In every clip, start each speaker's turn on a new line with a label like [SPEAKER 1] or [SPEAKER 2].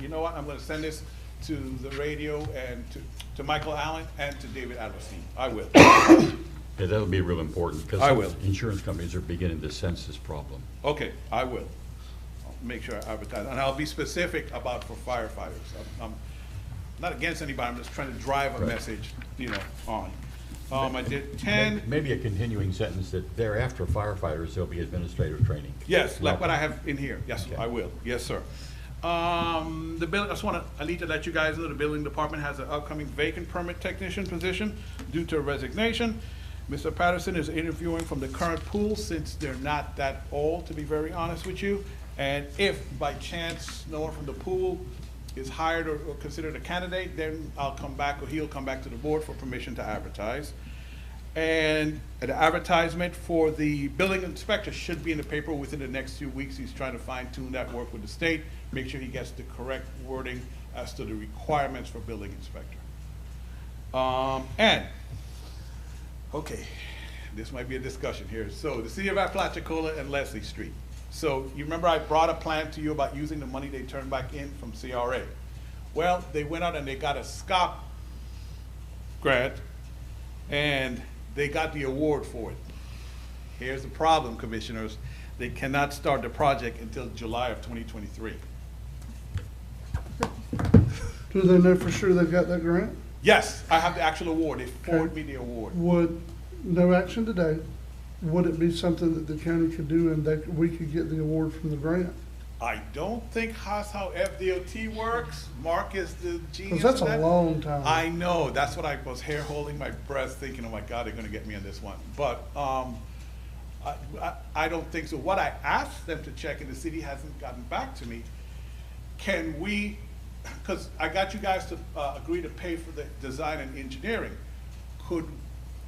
[SPEAKER 1] you know what, I'm gonna send this to the radio and to, to Michael Allen and to David Adelstein. I will.
[SPEAKER 2] Yeah, that would be real important, because.
[SPEAKER 1] I will.
[SPEAKER 2] Insurance companies are beginning to sense this problem.
[SPEAKER 1] Okay, I will. I'll Make sure I advertise, and I'll be specific about for firefighters. I'm- I'm not against anybody, I'm just trying to drive a
[SPEAKER 2] Right.
[SPEAKER 1] message, you know, on. Um, I did ten.
[SPEAKER 2] Maybe a continuing sentence that thereafter firefighters, there'll be administrative training.
[SPEAKER 1] Yes, like what I have in here, yes,
[SPEAKER 2] Okay.
[SPEAKER 1] I will, yes, sir. Um, the bill, I just wanna, I need to let you guys know, the building department has an upcoming vacant permit technician position due to resignation. Mr. Patterson is interviewing from the current pool since they're not that old, to be very honest with you. And if by chance no one from the pool is hired or or considered a candidate, then I'll come back, or he'll come back to the board for permission to advertise. And an advertisement for the building inspector should be in the paper within the next few weeks. He's trying to fine tune that work with the state, make sure he gets the correct wording as to the requirements for building inspector. Um, and, okay, this might be a discussion here. So the city of Apalachicola and Leslie Street. So you remember I brought a plan to you about using the money they turned back in from CRA. Well, they went out and they got a SCOP grant and they got the award for it. Here's the problem, commissioners, they cannot start the project until July of twenty twenty-three.
[SPEAKER 3] Do they know for sure they've got that grant?
[SPEAKER 1] Yes, I have the actual award, they forwarded me the award.
[SPEAKER 3] Would, no action today, would it be something that the county could do and that we could get the award from the grant?
[SPEAKER 1] I don't think that's how FDOT works, Mark is the genius
[SPEAKER 3] Because
[SPEAKER 1] of
[SPEAKER 3] that's a
[SPEAKER 1] that.
[SPEAKER 3] long time.
[SPEAKER 1] I know, that's what I was hair holding my breath, thinking, oh my God, they're gonna get me on this one. But, um, I, I, I don't think so. What I asked them to check and the city hasn't gotten back to me, can we, because I got you guys to, uh, agree to pay for the design and engineering. Could,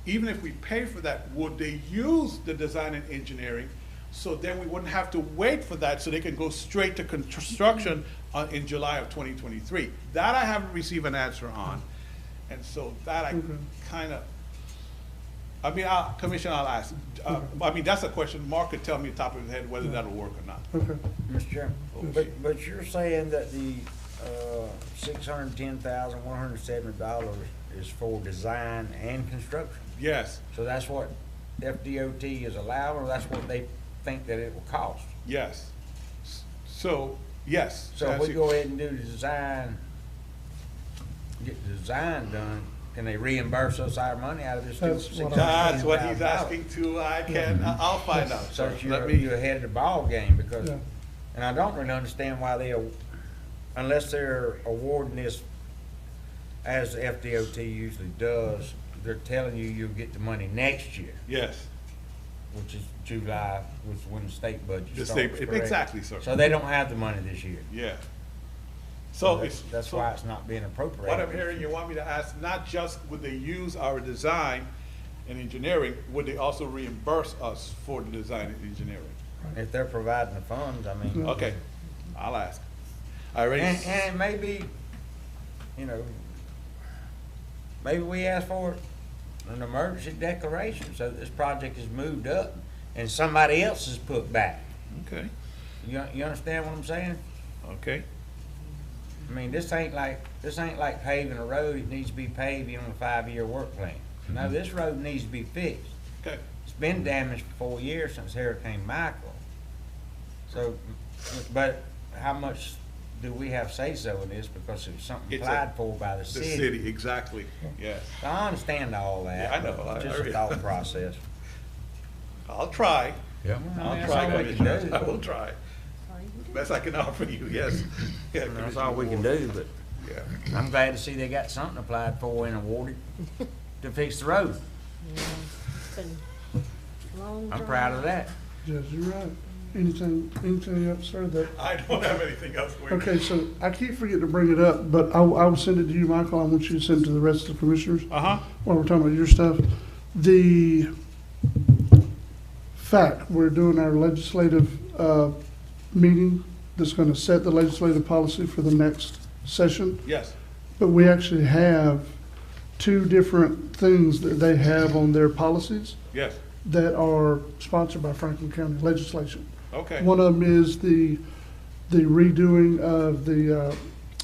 [SPEAKER 1] even if we pay for that, would they use the design and engineering? So then we wouldn't have to wait for that, so they can go straight to construction on, in July of twenty twenty-three. That I haven't received an answer on, and so that I
[SPEAKER 3] Okay.
[SPEAKER 1] kinda, I mean, I'll, Commissioner, I'll ask, uh, I mean, that's a question, Mark could tell me top of his head whether that'll work or not.
[SPEAKER 3] Okay,
[SPEAKER 4] Mr. Chairman,
[SPEAKER 1] Oh,
[SPEAKER 4] but, but you're saying that the, uh, six hundred and ten thousand, one hundred and seventy dollars is for design and construction?
[SPEAKER 1] Yes,
[SPEAKER 4] So that's what FDOT is allowing, or that's what they think that it will cost?
[SPEAKER 1] yes. S- So, yes.
[SPEAKER 4] So if
[SPEAKER 1] that's
[SPEAKER 4] we
[SPEAKER 1] it.
[SPEAKER 4] go ahead and do the design, get the design done, can they reimburse us our money out of this?
[SPEAKER 3] That's
[SPEAKER 4] $610,000?
[SPEAKER 3] what I'm-
[SPEAKER 1] That's what he's asking too, I can, I- I'll find out,
[SPEAKER 4] So
[SPEAKER 1] sir. Let
[SPEAKER 4] you're,
[SPEAKER 1] me-
[SPEAKER 4] you're ahead of the ball game because,
[SPEAKER 3] Yeah.
[SPEAKER 4] and I don't really understand why they, are- unless they're awarding this as the FDOT usually does, they're telling you you'll get the money next year,
[SPEAKER 1] Yes,
[SPEAKER 4] which is July, which is when the state budget
[SPEAKER 1] The
[SPEAKER 4] starts.
[SPEAKER 1] state-
[SPEAKER 4] correct?
[SPEAKER 1] exactly, sir.
[SPEAKER 4] So they don't have the money this year.
[SPEAKER 1] yeah. So
[SPEAKER 4] that's-
[SPEAKER 1] it's.
[SPEAKER 4] That's
[SPEAKER 1] so
[SPEAKER 4] why it's not being appropriated.
[SPEAKER 1] What I'm hearing, you want me to ask, not just would they use our design and engineering, would they also reimburse us for the design and engineering?
[SPEAKER 4] If they're providing the funds, I mean.
[SPEAKER 1] Okay, I'll ask. I already.
[SPEAKER 4] And,
[SPEAKER 1] s-
[SPEAKER 4] and maybe, you know, maybe we ask for an emergency declaration so that this project is moved up and somebody else is put back.
[SPEAKER 1] Okay,
[SPEAKER 4] You, you understand what I'm saying?
[SPEAKER 1] okay.
[SPEAKER 4] I mean, this ain't like, this ain't like paving a road, it needs to be paved on a five-year work plan. No, this road needs to be fixed.
[SPEAKER 1] Okay,
[SPEAKER 4] It's been damaged for four years since Hurricane Michael. So, but how much do we have say-so in this because it was something
[SPEAKER 1] It's a-
[SPEAKER 4] applied for by the
[SPEAKER 1] the
[SPEAKER 4] city?
[SPEAKER 1] city, exactly, yes.
[SPEAKER 4] I understand all that.
[SPEAKER 1] Yeah, I know.
[SPEAKER 4] but
[SPEAKER 1] I- I
[SPEAKER 4] It's just
[SPEAKER 1] re-
[SPEAKER 4] a thought process.
[SPEAKER 1] I'll try.
[SPEAKER 2] Yeah.
[SPEAKER 4] I mean,
[SPEAKER 1] I'll
[SPEAKER 4] that's
[SPEAKER 1] try,
[SPEAKER 4] all we can
[SPEAKER 1] Commissioner.
[SPEAKER 4] do.
[SPEAKER 1] I will try. Best I can offer you, yes. Yeah,
[SPEAKER 4] That's all
[SPEAKER 1] Commissioner
[SPEAKER 4] we can
[SPEAKER 1] Ward.
[SPEAKER 4] do, but
[SPEAKER 1] Yeah.
[SPEAKER 4] I'm glad to see they got something applied for and awarded to fix the road.
[SPEAKER 5] Been long
[SPEAKER 4] I'm
[SPEAKER 5] drawn
[SPEAKER 4] proud of
[SPEAKER 5] out.
[SPEAKER 4] that.
[SPEAKER 3] Judge, you're right. Anything, anything else, sir, that,
[SPEAKER 1] I don't have anything else for you.
[SPEAKER 3] okay, so I keep forgetting to bring it up, but I, I will send it to you, Michael. I want you to send it to the rest of the commissioners
[SPEAKER 1] Uh-huh,
[SPEAKER 3] while we're talking about your stuff. The fact, we're doing our legislative, uh, meeting that's gonna set the legislative policy for the next session.
[SPEAKER 1] yes.
[SPEAKER 3] But we actually have two different things that they have on their policies
[SPEAKER 1] Yes,
[SPEAKER 3] that are sponsored by Franklin County legislation.
[SPEAKER 1] okay.
[SPEAKER 3] One of them is the, the redoing of the uh,